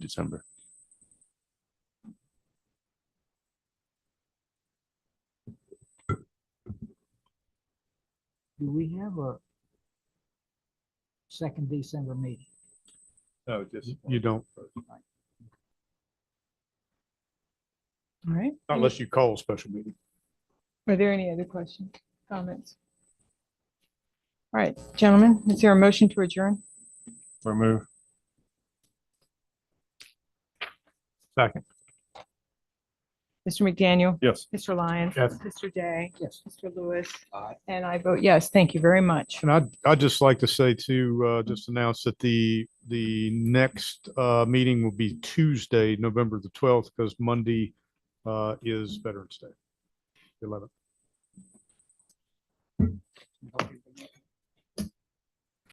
December. Do we have a second December meeting? Oh, No, just. You don't, All right. unless you call a special meeting. Are there any other questions, comments? All right, gentlemen, is there a motion to adjourn? Or move. Second. Mr. McDaniel, Yes. Mr. Lyons. Yes. Mr. Day, Yes. Mr. Lewis. Aye. And I vote yes. Thank you very much. And I'd, I'd just like to say to, uh, just announce that the, the next, uh, meeting will be Tuesday, November the twelfth, because Monday, uh, is Veterans Day. Eleven.